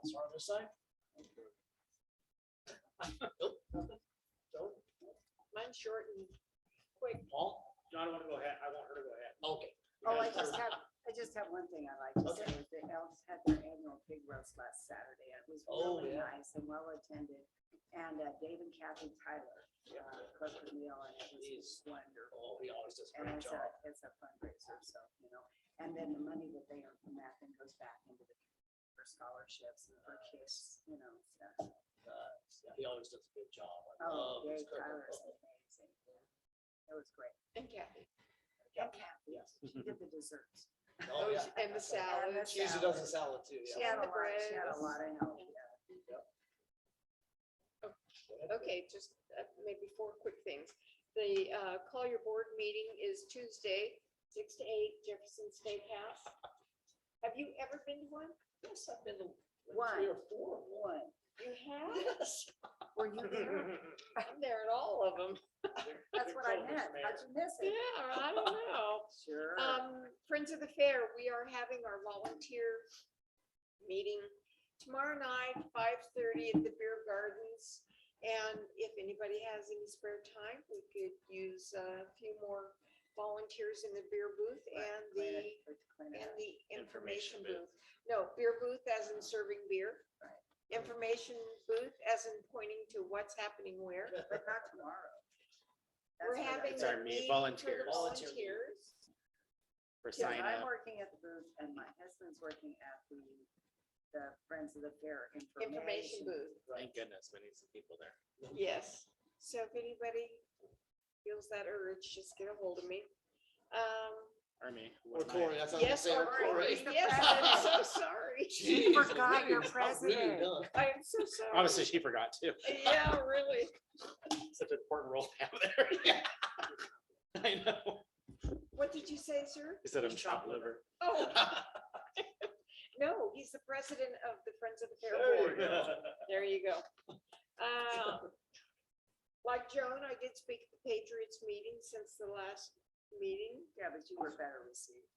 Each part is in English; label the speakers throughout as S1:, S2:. S1: Sorry, this side? Nope, nothing. Don't.
S2: Mine's short and quick.
S1: Paul?
S3: No, I don't want to go ahead. I want her to go ahead.
S1: Okay.
S4: Oh, I just have, I just have one thing I'd like to say, is the Elks had their annual pig roast last Saturday, it was
S1: Oh,
S4: really
S1: yeah.
S4: nice and well attended. And uh, Dave and Kathy Tyler, uh, cooked the meal and it was
S1: He's-
S4: wonderful.
S1: Oh, he always does a
S4: And
S1: great
S4: it's a,
S1: job.
S4: it's a fundraiser, so, you know, and then the money that they earn from that then goes back into the, for scholarships and for kids, you know, stuff.
S1: Uh, yeah, He always does a good job. I
S4: Oh,
S1: love his
S4: Dave
S1: cooking.
S4: Tyler is amazing, it was great.
S2: And Kathy.
S4: And Kathy,
S1: Yes.
S4: she did the desserts.
S1: Oh,
S2: Oh,
S1: yeah.
S2: she- And the salad.
S4: the
S1: She usually does a salad too,
S4: She
S1: yeah.
S4: had a
S2: the
S4: lot, she had a
S2: breads.
S4: lot of help, yeah.
S2: Okay, just uh, maybe four quick things. The uh, call your board meeting is Tuesday, six to eight Jefferson State House. Have you ever been to one?
S1: Yes, I've been to like
S4: One.
S1: three or four. of them.
S4: One,
S2: You have?
S1: Yes.
S4: were you there?
S2: I'm there at all of them.
S4: That's what I meant, how'd you miss
S2: Yeah,
S4: it?
S2: I don't know.
S4: Sure.
S2: Um, Friends of the Fair, we are having our volunteer meeting tomorrow night, five thirty at the Beer Gardens. And if anybody has any spare time, we could use uh, a few more volunteers in the beer booth
S4: Right,
S2: and
S4: clean
S2: the,
S4: it, put- clean it
S2: and
S4: up.
S2: the information
S3: Information booth.
S2: booth. No, beer booth as in serving beer.
S4: Right.
S2: Information booth as in pointing to what's happening where.
S4: But not tomorrow. That's what
S2: We're
S4: I-
S2: having.
S3: It's our
S2: the
S3: meet-
S2: meeting for the
S3: volunteers.
S1: Volunteer meeting.
S2: Volunteers.
S3: For
S4: Because
S3: sign
S4: I'm
S3: up.
S4: working at the booth and my husband's working at the, the Friends of the Fair information.
S2: information booth,
S3: Thank goodness we need some people there.
S2: yes. So if anybody feels that urge, just get a hold of me. Um,
S3: Or me.
S1: Or
S3: one night.
S1: Corey, that's what I'm
S2: yes,
S1: saying.
S2: or,
S1: Or Corey.
S4: Corey.
S2: yes, I'm so sorry.
S1: Jeez
S4: forgot your
S1: Louise, I'm really
S4: president.
S1: done.
S2: I am so sorry.
S3: Obviously, she forgot too.
S2: Yeah, really.
S3: Such an important role to have there. Yeah. I know.
S2: What did you say, sir?
S3: Instead of chopped liver.
S2: Oh. No, he's the president of the Friends of the Fair
S1: There you
S2: Board.
S1: go.
S2: There you go. Uh, Like Joan, I did speak at the Patriots meeting since the last meeting.
S4: Yeah, but you were better received.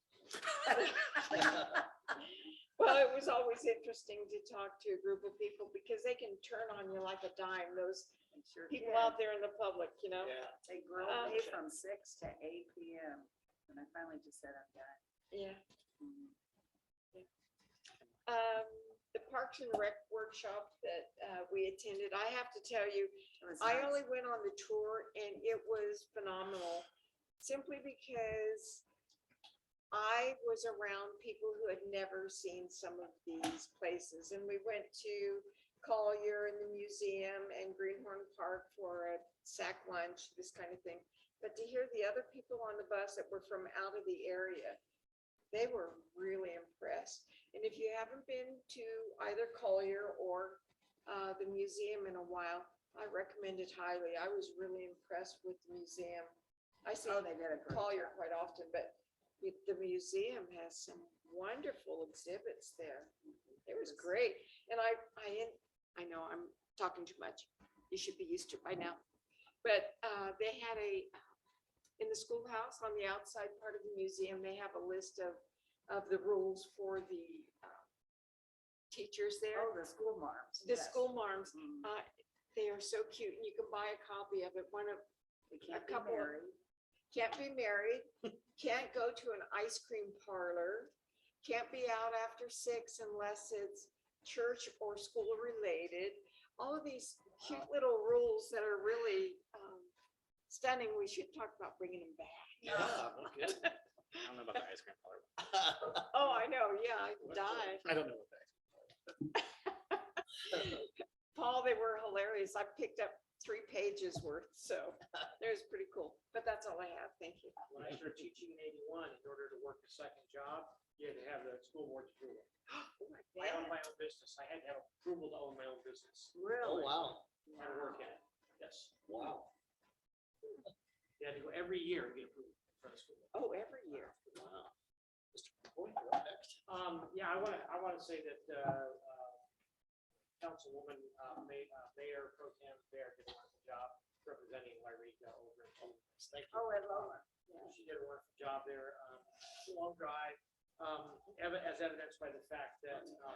S2: Well, it was always interesting to talk to a group of people because they can turn on you like a dime, those
S4: They sure
S2: people Oh,
S4: did.
S2: out there in the public, you know?
S1: Yeah.
S4: They grilled me from six to eight P M. And I finally just said, I'm done.
S2: Yeah.
S4: Mm.
S2: Um, the Parks and Rec workshop that, uh, we attended, I have to tell you,
S4: It was
S2: I
S4: nice.
S2: only went on the tour and it was phenomenal simply because I was around people who had never seen some of these places. And we went to Collier and the museum and Greenhorn Park for a sack lunch, this kind of thing. But to hear the other people on the bus that were from out of the area, they were really impressed. And if you haven't been to either Collier or uh, the museum in a while, I recommend it highly. I was really impressed with the museum. I see
S4: Oh, they did a great.
S2: Collier
S4: job.
S2: quite often, but the- the museum has some wonderful exhibits there. It was great. And I, I, en- I know I'm talking too much. You should be used to it by now. But uh, they had a, uh, in the schoolhouse on the outside part of the museum, they have a list of, of the rules for the uh, teachers there.
S4: Oh, the school marms.
S2: The
S4: yes.
S2: school marms,
S4: Mm.
S2: uh, they are so cute and you can buy a copy of it. One of,
S4: They can't be
S2: couple of-
S4: married.
S2: can't be married, can't go to an ice cream parlor, can't be out after six unless it's church or school related. All of these cute little rules that are really um, stunning. We should talk about bringing them back.
S1: Yeah, no kidding.
S3: I don't know about the ice cream parlor.
S2: Oh, I know. Yeah, I could die.
S3: I don't know what that.
S2: Paul, they were hilarious. I picked up three pages worth, so it was pretty cool. But that's all I have. Thank you.
S5: when I started teaching in eighty-one, in order to work a second job, you had to have the school board's approval.
S2: Oh, my
S5: I owned my
S2: God.
S5: own business. I had to have approval to own my own business.
S1: Oh,
S4: Really?
S1: wow.
S5: Had to work at it. Yes.
S1: Wow.
S5: You had to go every year and get approval for the school.
S2: Oh, every year.
S1: Wow. Mr. Boyd, you're up next.
S5: Um, yeah, I wanna, I wanna say that, uh, uh, Councilwoman, uh, May, uh, Mayor Pro Tem Bear did a wonderful job representing Wairega over in Columbus. Thank you.
S4: Oh, I love it.
S5: She did a wonderful job there. Um, Long drive, um, ev- as evidenced by the fact that, um,